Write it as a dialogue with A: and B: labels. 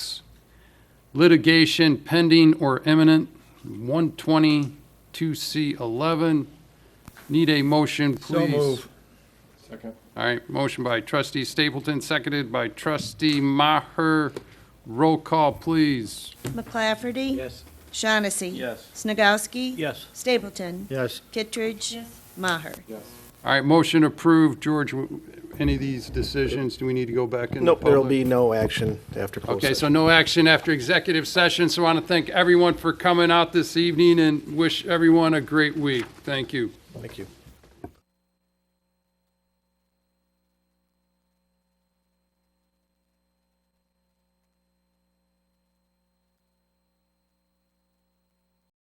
A: litigation pending or imminent, 122C11. Need a motion, please?
B: Second.
A: All right, motion by trustee Stapleton, seconded by trustee Maher. Roll call, please.
C: McClafferty.
B: Yes.
C: Shaughnessy.
B: Yes.
C: Snagowski.
B: Yes.
C: Stapleton.
D: Yes.
C: Kittredge. Maher.
B: Yes.
A: All right, motion approved. George, w- any of these decisions, do we need to go back into
D: Nope, there'll
A: public?
D: be no action after closed
A: Okay, so
D: session.
A: no action after executive session, so I want to thank everyone for coming out this evening and wish everyone a great week. Thank you.
D: Thank you.